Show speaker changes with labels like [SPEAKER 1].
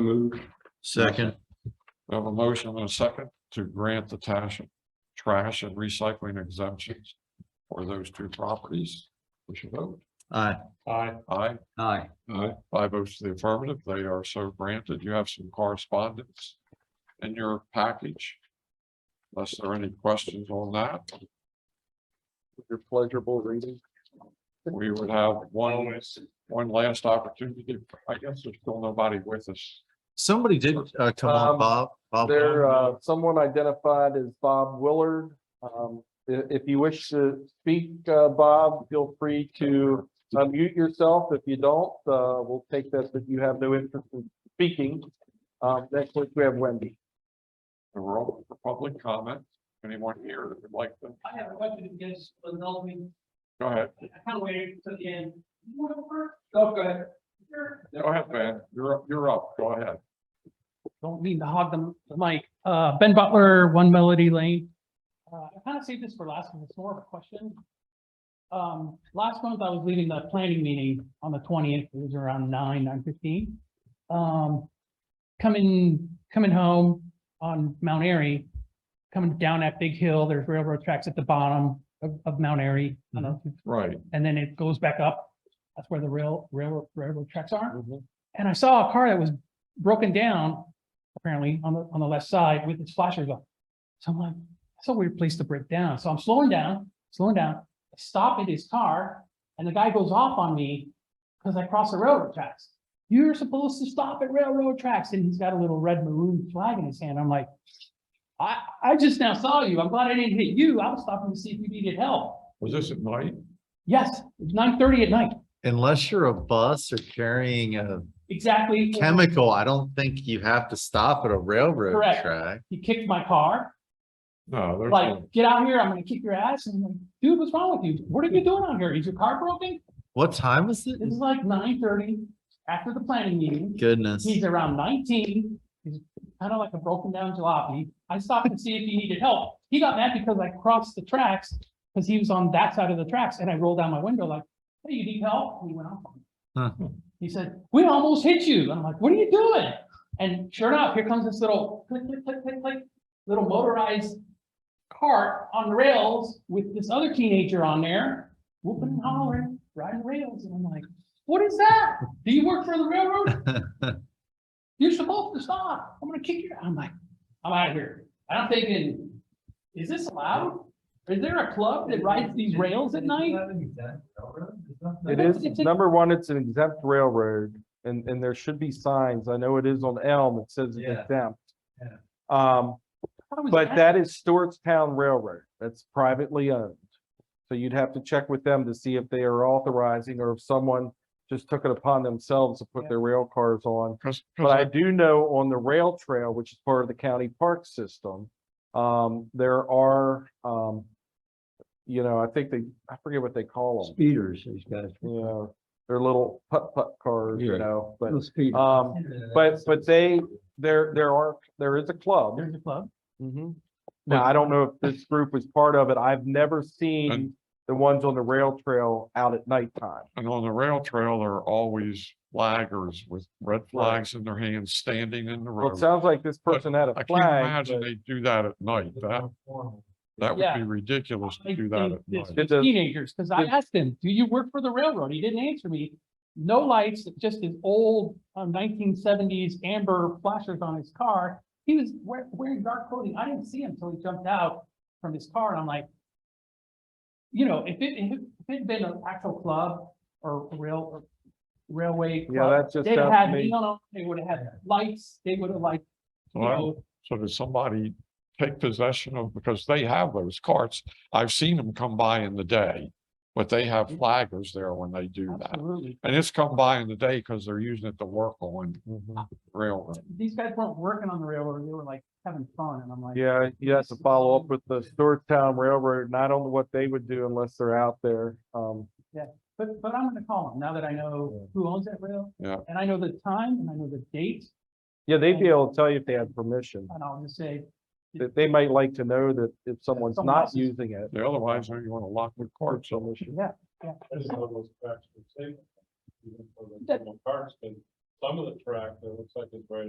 [SPEAKER 1] Move.
[SPEAKER 2] Second,
[SPEAKER 1] We have a motion and a second to grant the trash, trash and recycling exemptions for those two properties. We should vote.
[SPEAKER 2] aye.
[SPEAKER 1] Aye. Aye.
[SPEAKER 2] Aye.
[SPEAKER 1] Aye. Five votes to the affirmative. They are so granted. You have some correspondence in your package. Unless there are any questions on that. With Your pleasurable reading. We would have one, one last opportunity. I guess there's still nobody with us.
[SPEAKER 2] Somebody did, uh, come on,
[SPEAKER 3] Um,
[SPEAKER 2] Bob. Bob.
[SPEAKER 3] There, uh, someone identified as Bob Willard. Um, i- if, you wish to speak, uh, Bob, feel free to unmute yourself. If you don't, uh, we'll take this if you have no interest in speaking. Um, next week we have Wendy.
[SPEAKER 1] The roll for public comment. Anyone here that would like to?
[SPEAKER 4] I have a question against the Melvin,
[SPEAKER 1] Go ahead.
[SPEAKER 4] I kind of waited to the end. You want to go first? No, go ahead. Sure.
[SPEAKER 1] Go ahead, Ben. You're up, you're up. Go ahead.
[SPEAKER 4] Don't mean to hog the the mic. Uh, Ben Butler, One Melody Lane. Uh, I kind of saved this for last one. It's more of a question. Um, last month I was leaving the planning meeting on the twentieth. It was around nine, nine fifteen. Um, coming, coming home on Mount Airy, coming down that big hill, there's railroad tracks at the bottom of, of Mount Airy. I don't know if you've
[SPEAKER 1] Right.
[SPEAKER 4] and then it goes back up. That's where the rail, railroad, railroad tracks are.
[SPEAKER 1] Mm-hmm.
[SPEAKER 4] And I saw a car that was broken down, apparently on the, on the left side with its flashers on. So I'm like, that's a weird place to break down. So I'm slowing down, slowing down, I stop in his car and the guy goes off on me because I crossed the railroad tracks. You're supposed to stop at railroad tracks and he's got a little red maroon flag in his hand. I'm like, I, I just now saw you. I'm glad I didn't hit you. I was stopping to see if you needed help.
[SPEAKER 1] Was this at night?
[SPEAKER 4] Yes, it's nine thirty at night,
[SPEAKER 2] Unless you're a bus or carrying a
[SPEAKER 4] exactly.
[SPEAKER 2] chemical, I don't think you have to stop at a railroad
[SPEAKER 4] Correct.
[SPEAKER 2] track.
[SPEAKER 4] He kicked my car,
[SPEAKER 1] No, there's, no-
[SPEAKER 4] like, get out here, I'm gonna kick your ass, and I'm like, dude, what's wrong with you? What are you doing out here? Is your car broken?
[SPEAKER 2] What time was it?
[SPEAKER 4] This is like nine thirty after the planning meeting,
[SPEAKER 2] Goodness.
[SPEAKER 4] he's around nineteen, he's kind of like a broken down jalopy. I stopped to see if he needed help, he got mad because I crossed the tracks, because he was on that side of the tracks, and I rolled down my window like, hey, you need help? And he went off on me.
[SPEAKER 2] Huh.
[SPEAKER 4] He said, we almost hit you. I'm like, what are you doing? And sure enough, here comes this little click, click, click, click, click, little motorized cart on rails with this other teenager on there, whooping and hollering, riding rails. And I'm like, what is that? Do you work for the railroad? You're supposed to stop. I'm gonna kick you. I'm like, I'm out of here. And I'm thinking, is this allowed? Is there a club that rides these rails at night?
[SPEAKER 3] It
[SPEAKER 5] Uh-huh.
[SPEAKER 3] is, number one, it's an exempt railroad and, and there should be signs. I know it is on Elm. It says it's
[SPEAKER 5] Yeah.
[SPEAKER 3] exempt.
[SPEAKER 5] Yeah.
[SPEAKER 3] Um,
[SPEAKER 4] I thought it was
[SPEAKER 3] But
[SPEAKER 4] at-
[SPEAKER 3] that is Stewartstown Railroad. That's privately owned. So you'd have to check with them to see if they are authorizing or if someone just took it upon themselves to put their rail cars on.
[SPEAKER 1] cause,
[SPEAKER 3] But I
[SPEAKER 1] cause
[SPEAKER 3] do know on the rail trail, which is part of the county park system, um, there are, um, you know, I think they, I forget what they call them.
[SPEAKER 5] Speeders, these guys.
[SPEAKER 3] You know, they're little putt-putt cars, you
[SPEAKER 5] Yeah.
[SPEAKER 3] know, but,
[SPEAKER 5] Little speeders.
[SPEAKER 3] um, but, but they, there, there are, there is a club.
[SPEAKER 4] There's a club.
[SPEAKER 3] Mhm. Now, I don't know if this group was part of it. I've never seen the ones on the rail trail out at nighttime.
[SPEAKER 1] and on the rail trail, there are always flaggers with red flags in their hands, standing in the
[SPEAKER 3] Well, it
[SPEAKER 1] road.
[SPEAKER 3] sounds like this
[SPEAKER 1] But
[SPEAKER 3] person had a
[SPEAKER 1] I can't
[SPEAKER 3] flag.
[SPEAKER 1] imagine they do that at night. That, that would
[SPEAKER 4] Yeah.
[SPEAKER 1] be ridiculous to
[SPEAKER 4] Like,
[SPEAKER 1] do that
[SPEAKER 4] and
[SPEAKER 1] at
[SPEAKER 4] it's
[SPEAKER 1] night.
[SPEAKER 3] Did the-
[SPEAKER 4] Teenagers, because I
[SPEAKER 3] did-
[SPEAKER 4] asked him, do you work for the railroad? He didn't answer me. No lights, just his old um, nineteen seventies amber flashers on his car. He was wear- wearing dark clothing. I didn't see him until he jumped out from his car and I'm like, you know, if it, if it- if it'd been an actual club or rail, or railway.
[SPEAKER 3] Yeah,
[SPEAKER 4] club,
[SPEAKER 3] that just
[SPEAKER 4] They'd
[SPEAKER 3] sounds
[SPEAKER 4] have had,
[SPEAKER 3] to me.
[SPEAKER 4] neon, they would have had lights, they would have like, you
[SPEAKER 1] So I-
[SPEAKER 4] know,
[SPEAKER 1] So does somebody take possession of, because they have those carts. I've seen them come by in the day. But they have flaggers there when they do that.
[SPEAKER 4] absolutely.
[SPEAKER 1] And it's come by in the day because they're using it to work on railroad.
[SPEAKER 4] These guys weren't working on the railroad. They were like having fun and I'm like.
[SPEAKER 3] Yeah, you have to follow up with the Stewartstown Railroad, not on what they would do unless they're out there. Um,
[SPEAKER 4] But, but I'm gonna call him now that I know who owns that rail.
[SPEAKER 1] Yeah.
[SPEAKER 4] And I know the time and I know the date,
[SPEAKER 3] yeah, they'd be able to tell you if they had permission.
[SPEAKER 4] and I'll just say,
[SPEAKER 3] They, they might like to know that if someone's
[SPEAKER 4] someone
[SPEAKER 3] not
[SPEAKER 4] else is-
[SPEAKER 3] using it.
[SPEAKER 1] Yeah, Otherwise, you want to lock the carts unless you.
[SPEAKER 4] yeah, yeah.
[SPEAKER 1] Some of the track, it looks like it's right